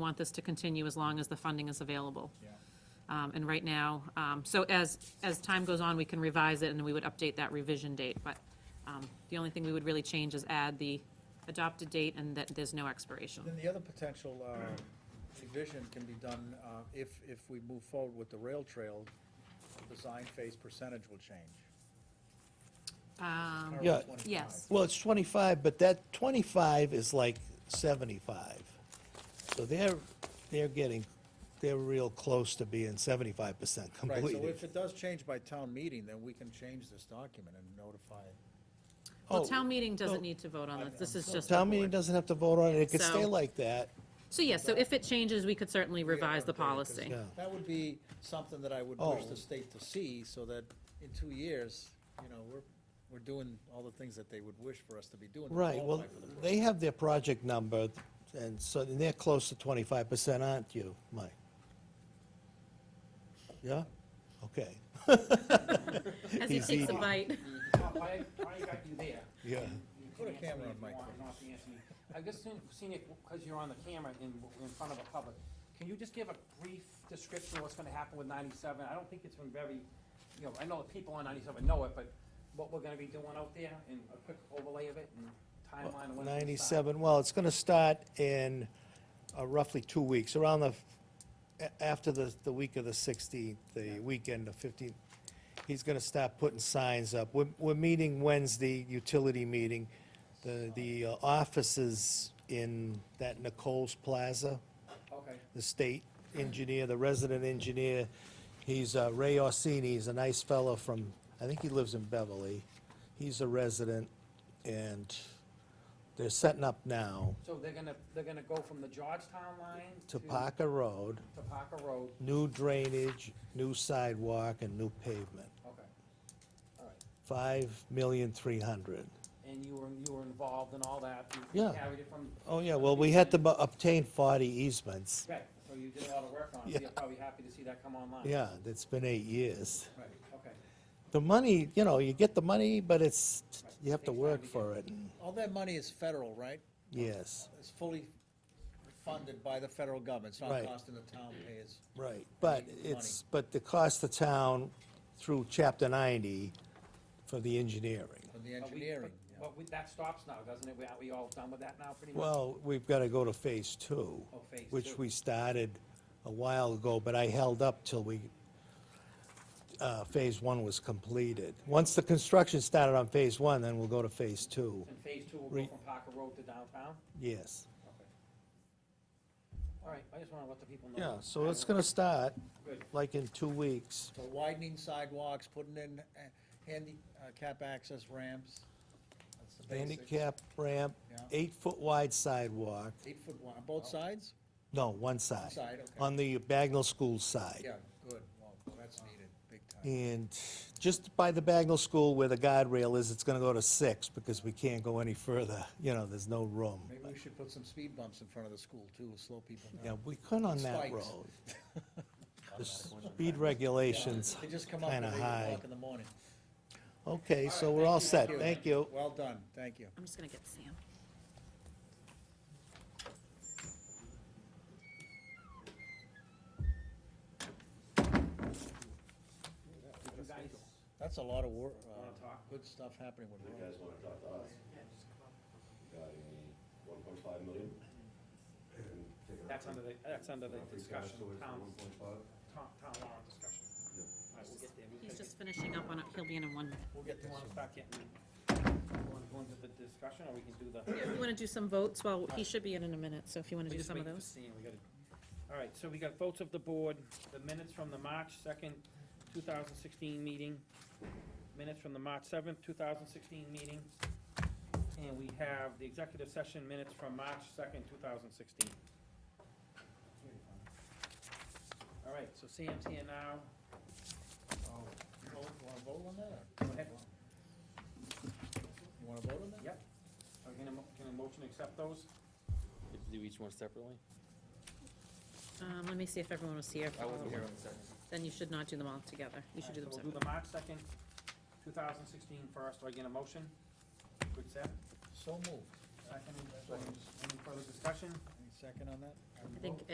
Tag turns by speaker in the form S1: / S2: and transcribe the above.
S1: want this to continue as long as the funding is available.
S2: Yeah.
S1: Um, And right now, um, so as, as time goes on, we can revise it, and we would update that revision date. But um, the only thing we would really change is add the adopted date and that there's no expiration.
S2: Then the other potential uh, revision can be done uh, if, if we move forward with the rail trail, the design phase percentage will change.
S1: Um,
S2: Current
S3: Yeah.
S2: 25.
S1: Yes.
S3: Well, it's 25, but that 25 is like 75. So they're, they're getting, they're real close to being 75%
S2: Right, so
S3: completed.
S2: if it does change by town meeting, then we can change this document and notify it.
S1: Well,
S3: Oh,
S1: town meeting
S3: oh.
S1: doesn't need to vote on this, this is just. the
S3: Town meeting
S1: board.
S3: doesn't have to vote on it, it could stay
S1: So-
S3: like that.
S1: So yes, so if it changes, we could certainly
S2: We have
S1: revise the
S2: updated, 'cause
S1: policy.
S3: Yeah.
S2: That would be something that I would wish
S3: Oh.
S2: the state to see, so that in two years, you know, we're, we're doing all the things that they would wish for us to be doing. to
S3: Right, well,
S2: qualify for the program.
S3: they have their project number, and so and they're close to 25%, aren't you, Mike? Yeah? Okay.
S1: As he
S3: He's
S1: takes a
S3: eating.
S1: bite.
S4: Why, why I got you there?
S3: Yeah.
S4: You can
S2: Put a
S4: answer
S2: camera on
S4: it if you
S2: Mike,
S4: want, not the answer me. I just seen, seen it, because you're on the camera in, in front of a public, can you just give a brief description of what's gonna happen with ninety-seven? I don't think it's been very, you know, I know the people on ninety-seven know it, but what we're gonna be doing out there, and a quick overlay of it, and timeline of when it's gonna start.
S3: 97, well, it's going to start in uh, roughly two weeks, around the, a- after the, the week of the 16th, the weekend of 15th. He's going to start putting signs up. We're, we're meeting Wednesday, utility meeting. The, the uh, offices in that Nicole's Plaza,
S4: Okay,
S3: the state engineer, the resident engineer. He's uh, Ray Orsini, he's a nice fellow from, I think he lives in Beverly. He's a resident, and they're setting up now
S4: so they're gonna, they're gonna go from the Georgetown line
S3: to Parker Road,
S4: To Parker Road,
S3: new drainage, new sidewalk, and new pavement.
S4: okay, all right.
S3: Five million three hundred.
S4: And you were, you were involved in all that? You
S3: Yeah.
S4: Carried it from?
S3: Oh, yeah, well, we had to bu- obtain forty easements.
S4: Right, so you did a lot of work on it, so you're probably happy to see that come online.
S3: Yeah, that's been eight years.
S4: Right, okay.
S3: The money, you know, you get the money, but it's, you have
S4: Takes
S3: to
S4: time
S3: work
S4: to get
S3: for it, and-
S2: All that money is federal, right?
S3: yes.
S2: It's fully funded by the federal government, it's not
S3: Right.
S2: costing the town payers.
S3: Right, but
S2: the
S3: it's, but the cost to town through chapter ninety for the engineering.
S2: From the
S4: But we-
S2: engineering,
S4: but-
S2: yeah.
S4: But we- that stops now, doesn't it? We- Are we all done with that now, pretty much?
S3: Well, we've gotta go to phase two.
S4: Oh, phase
S3: Which
S4: two.
S3: we started a while ago, but I held up till we, uh, phase one was completed. Once the construction started on phase one, then we'll go to phase two,
S4: And phase two will
S3: Re-
S4: go from Parker Road to downtown?
S3: yes.
S4: Okay. All right, I just want to let the people know.
S3: Yeah, so it's gonna start
S4: Good.
S3: like in two weeks.
S2: So widening sidewalks, putting in uh, handicap access ramps. That's the basics.
S3: Handicap ramp,
S2: Yeah.
S3: eight-foot wide sidewalk,
S2: Eight foot wide, on both sides?
S3: no, one side.
S2: side, okay.
S3: On the Bagnell School side.
S2: Yeah, good, well, that's needed, big time.
S3: And just by the Bagnell School where the guardrail is, it's gonna go to six because we can't go any further, you know, there's no room.
S2: Maybe we should put some speed bumps in front of the school too, slow people
S3: Yeah,
S2: down.
S3: we couldn't on that
S2: Spikes.
S3: road. The speed regulations
S2: They just come up at
S3: kinda
S2: eight
S3: high.
S2: o'clock in the morning.
S3: Okay, so we're all set, thank you.
S2: Well done, thank you.
S1: I'm just gonna get Sam.
S4: Did you guys
S2: That's a lot of work,
S4: Wanna talk?
S2: good stuff happening with
S5: You
S2: roads.
S5: guys wanna talk to us? Regarding one point five million? And taking
S4: That's
S5: our
S4: under the, that's under the
S5: free cash
S4: discussion,
S5: towards
S4: town,
S5: One point five?
S4: town, town warrant discussion. All right, we'll get there. We'll
S1: He's
S4: take it.
S1: just finishing up on it, he'll be in in one minute.
S2: We'll get
S4: You
S2: this.
S4: want to start getting, want to go into the discussion, or we can do the?
S1: You wanna do some votes, well, he should be in in a minute, so if you wanna
S4: We
S1: do
S4: just
S1: some of
S4: wait for
S1: those.
S4: Sam, we gotta- All right, so we got votes of the board, the minutes from the March second, two thousand sixteen meeting, minutes from the March seventh, two thousand sixteen meeting, and we have the executive session minutes from March second, two thousand sixteen. All right, so Sam's here now.
S2: Oh, you Wanna vote on that? or-
S4: Go ahead.
S2: You wanna vote on that?
S4: Yep. Are we gonna, mo- can a motion accept those?
S6: Do each one separately?
S1: Um, let me see if everyone was here.
S6: I wasn't here on the second.
S1: Then you should not do them all together, you should do them
S4: So we'll do
S1: separately.
S4: the March second, two thousand sixteen first. Do I get a motion? Quick set.
S2: So moved.
S4: Second, any further discussion?
S2: Any second on that?
S1: I think